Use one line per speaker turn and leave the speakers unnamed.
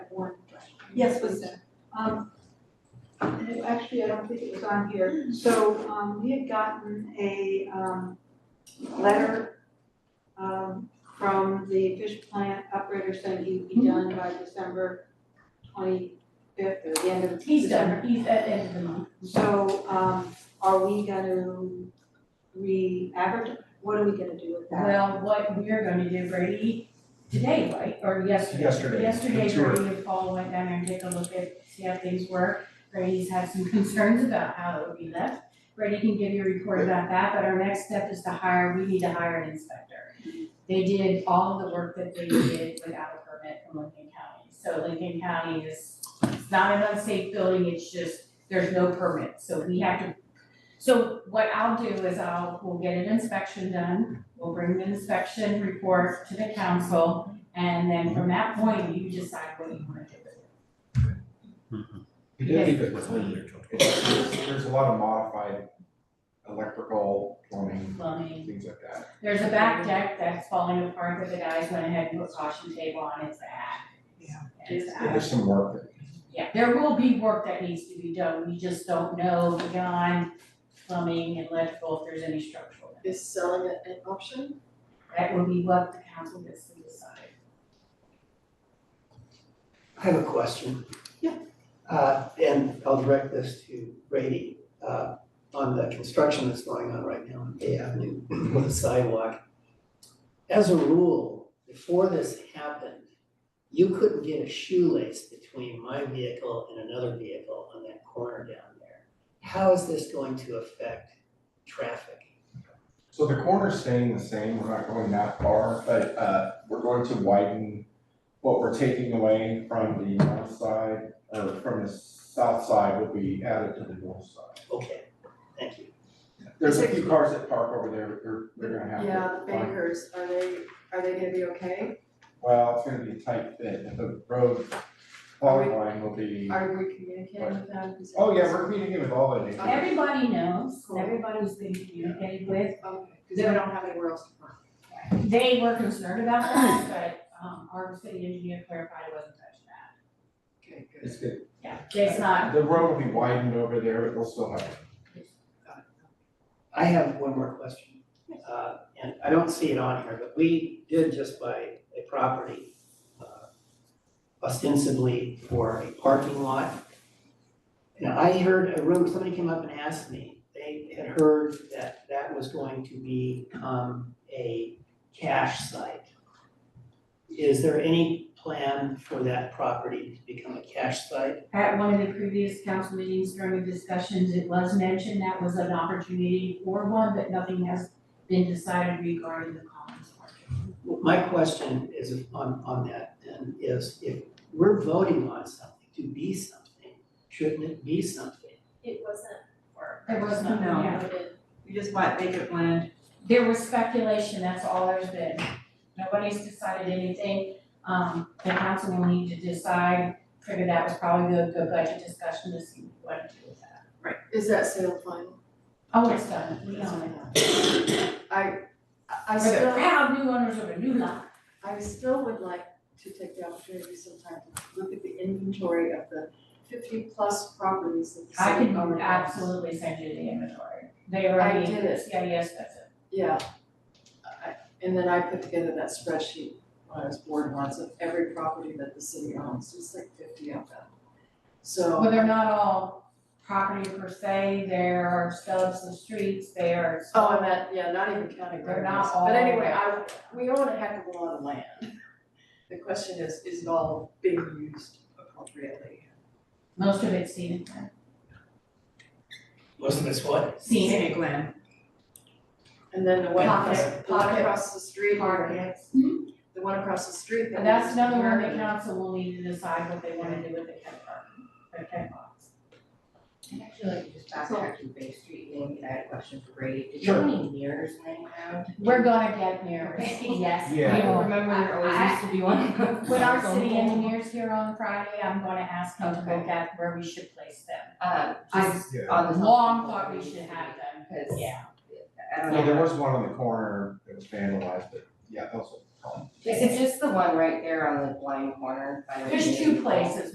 Yes, please. Um, and it- actually, I don't think it was on here, so, um, we had gotten a, um, letter, um, from the fish plant operator saying he'd
Mm-hmm.
be done by December twenty-fifth or the end of
He's
December.
done, he's at end of the month.
So, um, are we gonna re-advertise, what are we gonna do with that?
Well, what we're gonna do, Brady, today, right, or yesterday?
Yesterday,
Yesterday,
the tour.
Brady and Paul went down there and took a look at, see how things were. Brady's had some concerns about how it would be left. Brady can give you a report about that, but our next step is to hire, we need to hire an inspector. They did all of the work that they did without a permit from Lincoln County. So Lincoln County is, it's not an unsafe building, it's just, there's no permit, so we have to. So what I'll do is I'll, we'll get an inspection done, we'll bring the inspection report to the council. And then from that point, you decide what you wanna do with it.
We did leave it clean. It's- There's a lot of modified electrical, plumbing,
Plumbing.
things like that.
There's a back deck that's falling apart that the guys went ahead and put caution tape on, it's bad.
Yeah.
It's
Yeah,
bad.
There's some work that
Yeah, there will be work that needs to be done, we just don't know beyond plumbing and electrical if there's any structural.
Is selling it an option?
That will be what the council gets to decide.
I have a question.
Yeah.
Uh, and I'll direct this to Brady, uh, on the construction that's going on right now on Bay Avenue with the sidewalk. As a rule, before this happened, you couldn't get a shoelace between my vehicle and another vehicle on that corner down there. How is this going to affect traffic?
So the corner's staying the same, we're not going that far, but uh we're going to widen what we're taking away from the north side, or from the south side will be added to the north side.
Okay, thank you.
There's a few cars that park over there, they're they're gonna have to.
Yeah, the
find-
bakers, are they, are they gonna be okay?
Well, it's gonna be a tight fit, the road
Are we-
power line will be,
Are we communicating with them? Is it-
oh yeah, we're meeting with all of these.
Everybody knows,
Cool.
everybody's been communicated with,
Okay, cause they don't have anywhere else to park.
They were concerned about that, but um our city engineer clarified it wasn't touching that.
Okay, good.
It's good.
Yeah, it's not,
The road will be widened over there, but we'll still have.
I have one more question. Uh, and I don't see it on here, but we did just buy a property uh, ostensibly for a parking lot. And I heard, a room, somebody came up and asked me, they had heard that that was going to become a cash site. Is there any plan for that property to become a cash site?
at one of the previous council meetings during the discussions, it was mentioned that was an opportunity for one, but nothing has been decided regarding the Collins Orchard.
Well, My question is on, on that then, is if we're voting on something to be something, shouldn't it be something?
It wasn't for.
There was none, yeah.
You just might make it land.
There was speculation, that's all there's been. Nobody's decided anything. Um, the council will need to decide, figure that was probably a good budget discussion to see what to do with that.
Is that sale final?
Oh, it's done, we own it.
I, I- I
We're the
still,
proud new owners of a new lot.
I still would like to take the opportunity sometime to look at the inventory of the fifty plus properties that the
I
city
can
owns.
absolutely send you the inventory. They
I
already,
did it.
yeah, yes, that's it.
Yeah, I, and then I put together that spreadsheet when I was bored once of every property that the city owns, it's like fifty of them. So,
Well, they're not all property per se, there are stubs of streets, there's.
oh, and that, yeah, not even counting
They're
revenues,
not all.
but anyway, I, we own a heck of a lot of land. The question is, is it all being used appropriately?
Most of it's scenic,
Most of it's what?
scenic,
land. And then the one
Pocket-
across, the one
pocket
across the street, the
markets.
one across the street that
And that's
was
another one the
American.
council will need to decide what they wanna do with the Kent Park, the Kent box.
I'd actually like to just backtrack to Bay Street Lane, I had a question for Brady, did you
Sure.
have any mirrors laying around?
We're gonna get mirrors, yes, we
Yeah.
will.
remember
there always
used to be one.
When our city engineer's here on Friday, I'm gonna ask him to look at where we should place them.
Um, just
Yeah.
on the.
Long thought we should have them,
Cause.
yeah.
I don't
Yeah,
know,
there was one on the corner that was vandalized, but yeah, that was a problem.
is it just the one right there on the blind corner? by the-
There's two places,